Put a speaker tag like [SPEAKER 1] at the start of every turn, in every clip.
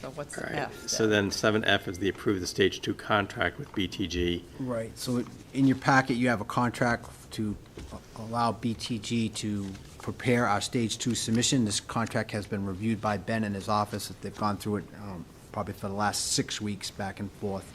[SPEAKER 1] so what's
[SPEAKER 2] All
[SPEAKER 1] the
[SPEAKER 2] right.
[SPEAKER 1] F?
[SPEAKER 2] So then seven F is the approve the stage two contract with BTG.
[SPEAKER 3] Right, so in your packet, you have a contract to allow BTG to prepare our Stage 2 submission. This contract has been reviewed by Ben and his office. They've gone through it um, probably for the last six weeks, back and forth.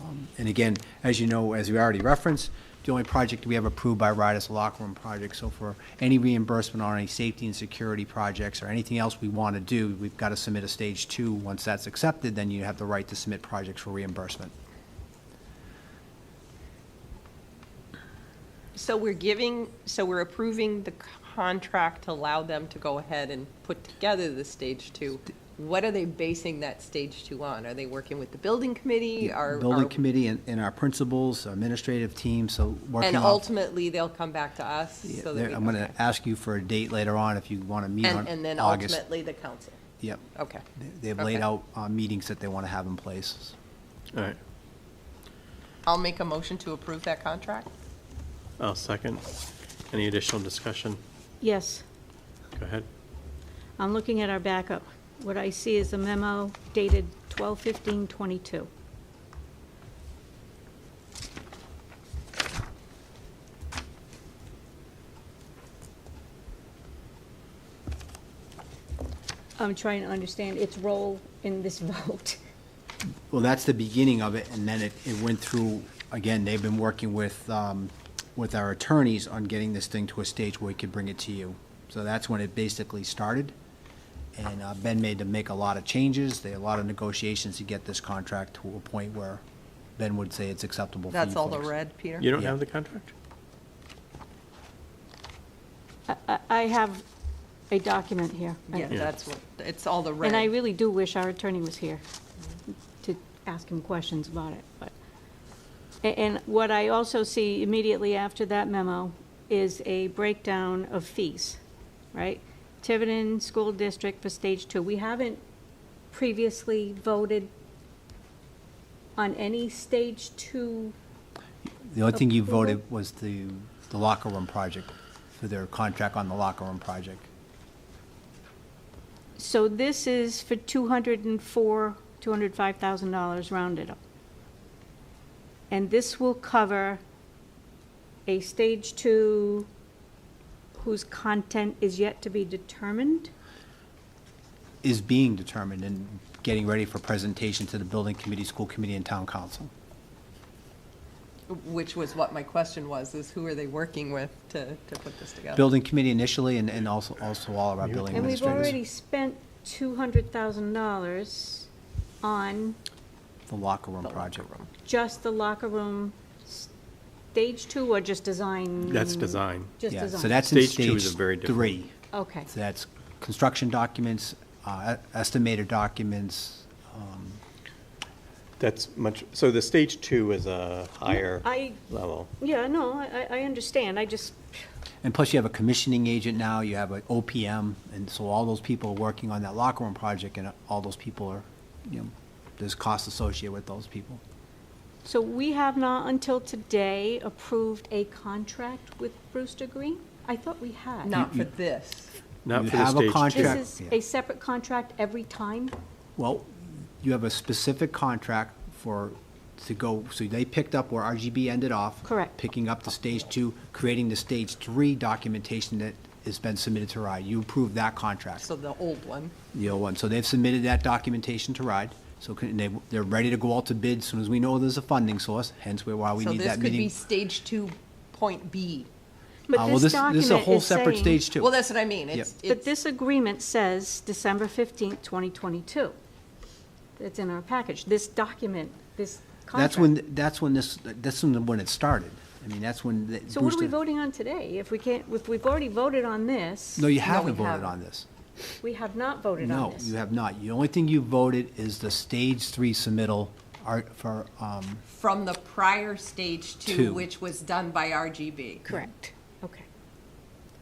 [SPEAKER 3] Um, And again, as you know, as we already referenced, the only project we have approved by RIDE is the locker room project. So for any reimbursement on any safety and security projects or anything else we want to do, we've got to submit a Stage 2. Once that's accepted, then you have the right to submit projects for reimbursement.
[SPEAKER 1] So we're giving, so we're approving the contract to allow them to go ahead and put together the stage two. What are they basing that stage two on? Are they working with the building committee? Are-
[SPEAKER 3] building
[SPEAKER 1] are-
[SPEAKER 3] committee and, and our principals, administrative team, so working
[SPEAKER 1] And
[SPEAKER 3] off.
[SPEAKER 1] ultimately, they'll come back to us
[SPEAKER 3] Yeah,
[SPEAKER 1] so that
[SPEAKER 3] there-
[SPEAKER 1] we.
[SPEAKER 3] I'm gonna ask you for a date later on if you wanna meet on
[SPEAKER 1] And,
[SPEAKER 3] August.
[SPEAKER 1] and then ultimately, the council.
[SPEAKER 3] Yep,
[SPEAKER 1] Okay.
[SPEAKER 3] They- they've laid
[SPEAKER 1] Okay.
[SPEAKER 3] out, uh, meetings that they wanna have in place.
[SPEAKER 2] All right,
[SPEAKER 1] I'll make a motion to approve that contract.
[SPEAKER 2] I'll second. Any additional discussion?
[SPEAKER 4] Yes,
[SPEAKER 2] Go ahead.
[SPEAKER 4] I'm looking at our backup. What I see is a memo dated 12/15/22. I'm trying to understand its role in this vote.
[SPEAKER 3] Well, that's the beginning of it, and then it, it went through, again, they've been working with, um, with our attorneys on getting this thing to a stage where we could bring it to you. So that's when it basically started, and uh, Ben made to make a lot of changes, there are a lot of negotiations to get this contract to a point where Ben would say it's acceptable for you
[SPEAKER 1] That's all the
[SPEAKER 3] folks.
[SPEAKER 1] red, Peter?
[SPEAKER 2] You don't
[SPEAKER 3] Yeah.
[SPEAKER 2] have the contract?
[SPEAKER 4] I- I have a document here.
[SPEAKER 1] Yeah, that's what, it's all the red.
[SPEAKER 4] And I really do wish our attorney was here to ask him questions about it, but. A- And what I also see immediately after that memo is a breakdown of fees, right? Tiverton School District for Stage Two. We haven't previously voted on any Stage Two,
[SPEAKER 3] The only thing you voted was the, the locker room project, for their contract on the locker room project.
[SPEAKER 4] so this is for two hundred and four, two hundred five thousand dollars rounded up. And this will cover a stage two whose content is yet to be determined?
[SPEAKER 3] Is being determined and getting ready for presentation to the building committee, school committee, and town council.
[SPEAKER 1] Which was what my question was, is who are they working with to, to put this together?
[SPEAKER 3] Building committee initially, and, and also, also all of our building
[SPEAKER 4] And we've
[SPEAKER 3] administrators.
[SPEAKER 4] already spent two hundred thousand dollars on
[SPEAKER 3] The locker room
[SPEAKER 1] The locker
[SPEAKER 3] project.
[SPEAKER 1] room.
[SPEAKER 4] just the locker room, stage two or just design?
[SPEAKER 2] That's design.
[SPEAKER 4] Just
[SPEAKER 3] Yeah,
[SPEAKER 4] design?
[SPEAKER 3] so that's in
[SPEAKER 2] Stage two is
[SPEAKER 3] stage
[SPEAKER 2] a very different-
[SPEAKER 3] three.
[SPEAKER 4] Okay.
[SPEAKER 3] So that's construction documents, uh, estimator documents, um,
[SPEAKER 2] That's much, so the stage two is a higher
[SPEAKER 4] I-
[SPEAKER 2] level.
[SPEAKER 4] Yeah, no, I, I I understand. I just,
[SPEAKER 3] And plus, you have a commissioning agent now, you have an OPM, and so all those people are working on that locker room project, and all those people are, you know, there's costs associated with those people.
[SPEAKER 4] So we have not until today approved a contract with Brewster Green? I thought we had.
[SPEAKER 1] Not for this.
[SPEAKER 2] Not
[SPEAKER 3] You
[SPEAKER 2] for the
[SPEAKER 3] have a
[SPEAKER 2] stage two.
[SPEAKER 3] contract.
[SPEAKER 4] This is a separate contract every time?
[SPEAKER 3] Well, you have a specific contract for, to go, so they picked up where RGB ended off.
[SPEAKER 4] Correct.
[SPEAKER 3] Picking up the stage two, creating the stage three documentation that has been submitted to RIDE. You approved that contract.
[SPEAKER 1] So the old one.
[SPEAKER 3] the old one. So they've submitted that documentation to RIDE, so can, they, they're ready to go out to bid as soon as we know there's a funding source, hence why we
[SPEAKER 1] So
[SPEAKER 3] need
[SPEAKER 1] this
[SPEAKER 3] that
[SPEAKER 1] could be
[SPEAKER 3] meeting.
[SPEAKER 1] stage two point B.
[SPEAKER 3] Uh,
[SPEAKER 4] But
[SPEAKER 3] well,
[SPEAKER 4] this document
[SPEAKER 3] This is a whole
[SPEAKER 4] is
[SPEAKER 3] separate
[SPEAKER 4] saying-
[SPEAKER 3] stage
[SPEAKER 1] Well,
[SPEAKER 3] too.
[SPEAKER 1] that's what I mean. It's,
[SPEAKER 4] But
[SPEAKER 1] it's,
[SPEAKER 4] this agreement says December 15th, 2022. It's in our package. This document, this contract.
[SPEAKER 3] That's when, that's when this, that's when, when it started. I mean, that's when the
[SPEAKER 4] So what are we
[SPEAKER 3] Brewster-
[SPEAKER 4] voting on today? If we can't, if we've already voted on this,
[SPEAKER 3] No, you
[SPEAKER 1] No,
[SPEAKER 3] haven't
[SPEAKER 1] we
[SPEAKER 3] voted
[SPEAKER 1] haven't.
[SPEAKER 3] on this.
[SPEAKER 4] we have not voted on
[SPEAKER 3] No,
[SPEAKER 4] this.
[SPEAKER 3] you have not. The only thing you voted is the stage three submittal are, for, um,
[SPEAKER 1] from the prior stage two,
[SPEAKER 3] Two.
[SPEAKER 1] which was done by RGB.
[SPEAKER 4] Correct. Okay.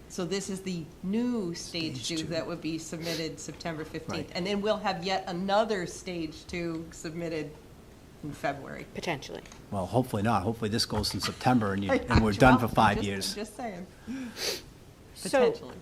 [SPEAKER 1] So this is the new stage two that would be submitted September fifteenth.
[SPEAKER 3] Right.
[SPEAKER 1] And then we'll have yet another stage two submitted in February.
[SPEAKER 4] Potentially.
[SPEAKER 3] well, hopefully not. Hopefully this goes in September and you, and we're done for
[SPEAKER 1] Well,
[SPEAKER 3] five
[SPEAKER 1] just-
[SPEAKER 3] years.
[SPEAKER 1] Just saying,
[SPEAKER 4] So
[SPEAKER 1] potentially.